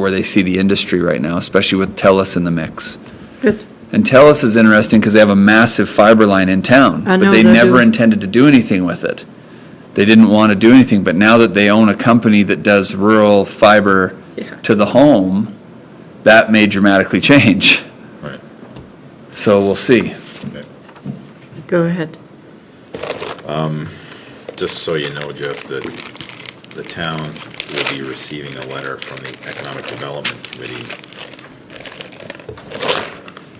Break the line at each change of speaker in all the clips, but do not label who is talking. where they see the industry right now, especially with TELUS in the mix.
Good.
And TELUS is interesting because they have a massive fiber line in town,
I
but
know
they
they
never
do.
intended to do anything with it. They didn't want to do anything, but now that they own a company that does rural fiber
Yeah.
to the home, that may dramatically change.
Right.
So we'll see.
Okay.
Go ahead.
Just so you know, Jeff, that the town will be receiving a letter from the Economic Development Committee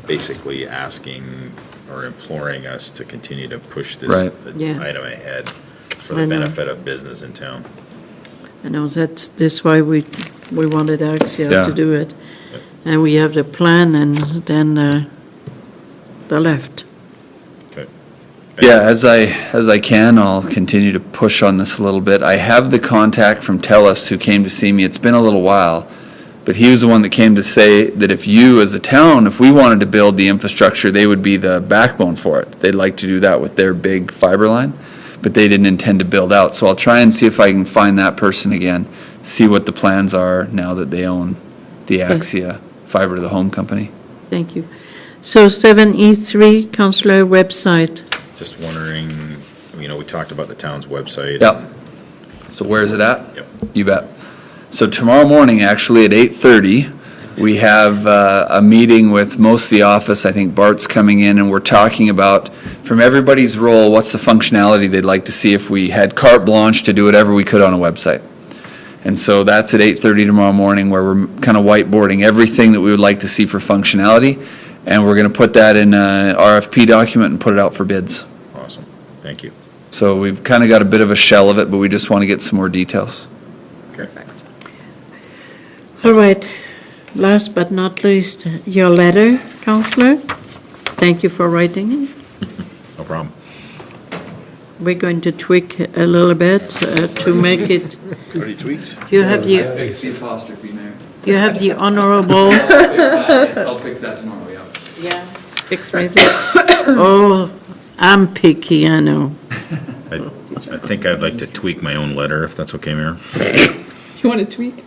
basically asking or imploring us to continue to push this
Right.
Yeah.
item ahead for
I
the
know.
benefit of business in town.
I know that's, that's why we, we wanted Axia
Yeah.
to do it. And we have the plan and then uh, the left.
Okay.
Yeah, as I, as I can, I'll continue to push on this a little bit. I have the contact from TELUS who came to see me. It's been a little while. But he was the one that came to say that if you, as a town, if we wanted to build the infrastructure, they would be the backbone for it. They'd like to do that with their big fiber line, but they didn't intend to build out. So I'll try and see if I can find that person again, see what the plans are now that they own the Axia Fiber to the Home Company.
Thank you. So 7E3, councillor website.
Just wondering, you know, we talked about the town's website.
Yep. So where is it at?
Yep.
You bet. So tomorrow morning, actually, at eight thirty, we have uh, a meeting with most of the office. I think Bart's coming in, and we're talking about, from everybody's role, what's the functionality they'd like to see if we had carte blanche to do whatever we could on a website. And so that's at eight thirty tomorrow morning, where we're kind of whiteboarding everything that we would like to see for functionality, and we're going to put that in an RFP document and put it out for bids.
Awesome. Thank you.
So we've kind of got a bit of a shell of it, but we just want to get some more details.
Perfect.
All right. Last but not least, your letter, councillor. Thank you for writing it.
No problem.
We're going to tweak a little bit uh, to make it,
Already tweaked?
you have the,
Fix the apostrophe, Mayor.
you have the
I'll
honorable.
fix that, I'll fix that tomorrow, yeah.
Yeah. Fix me this. Oh, I'm picky, I know.
I I think I'd like to tweak my own letter, if that's okay, Mayor.
You want to tweak?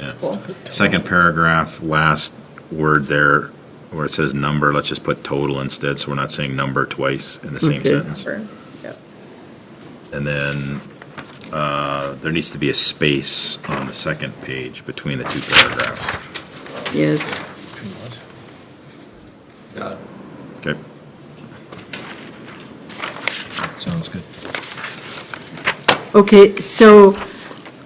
Yeah. Second paragraph, last word there, where it says number, let's just put total instead, so we're not saying number twice in the same
Okay.
sentence.
Yep.
And then, uh, there needs to be a space on the second page between the two paragraphs.
Yes,
Got it.
Okay? Sounds good.
okay, so,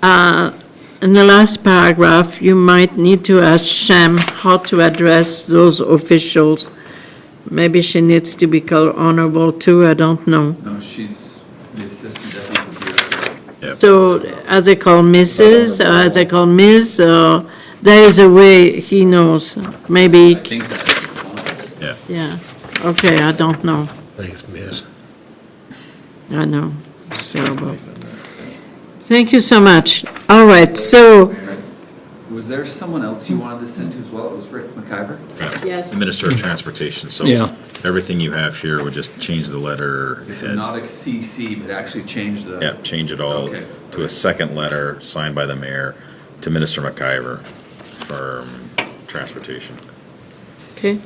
uh, in the last paragraph, you might need to ask Sham how to address those officials. Maybe she needs to be called honorable too, I don't know.
No, she's the assistant deputy director.
Yep.
So, are they called Mrs., are they called Ms., or there is a way he knows, maybe,
I think that's what she wants.
Yeah.
yeah, okay, I don't know.
Thanks, miss.
I know, it's terrible. Thank you so much. All right, so.
Mayor, Was there someone else you wanted to send to as well? It was Rick McIver?
Yes.
Minister of Transportation, so
Yeah.
everything you have here would just change the letter.
So
head.
not a CC, but actually change the.
Yeah, change it all
Okay.
to a second letter signed by the mayor to Minister McIver for um, transportation.
Okay.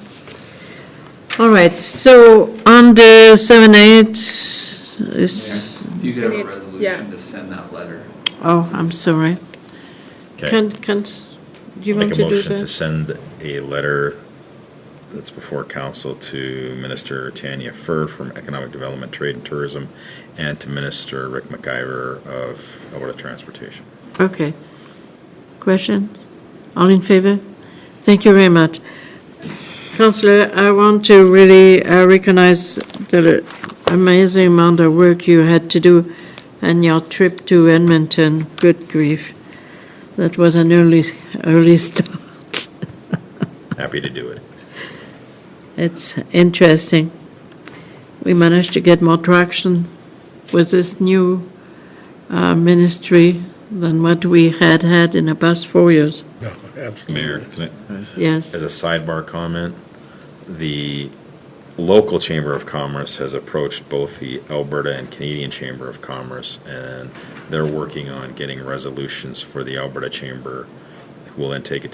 All right, so under seven eight is,
If you could have a
need-
resolution
yeah.
to send that letter.
oh, I'm sorry. Can,
Okay.
can, do you want
Make
to
a
do
motion to
that?
send a letter that's before council to Minister Tanya Fur from Economic Development, Trade and Tourism, and to Minister Rick McIver of Alberta Transportation.
Okay. Questions? All in favor? Thank you very much. Counselor, I want to really uh, recognize the amazing amount of work you had to do and your trip to Edmonton. Good grief. That was an early, early start.
Happy to do it.
It's interesting. We managed to get more traction with this new uh, ministry than what we had had in the past four years.
Mayor,
Absolutely.
can I-
Yes.
As a sidebar comment, the local Chamber of Commerce has approached both the Alberta and Canadian Chamber of Commerce, and they're working on getting resolutions for the Alberta Chamber, will then take it